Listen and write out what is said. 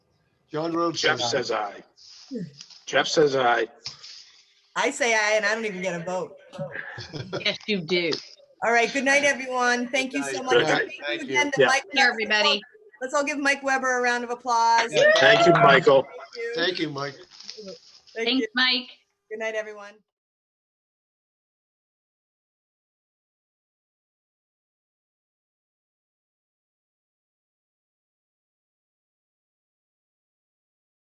John Rhodes Jeff says aye. says aye. Jeff says aye. I say aye, and I don't even get a vote. Yes, you do. All right, good night, everyone. Thank you so Good much. And night. Thank Thank you you. again to Yeah. Mike. Here, everybody. Let's all give Mike Weber a round of applause. Yeah. Thank you, Michael. Thank you. Thank you, Mike. Thank you. Thanks, Mike. Good night, everyone.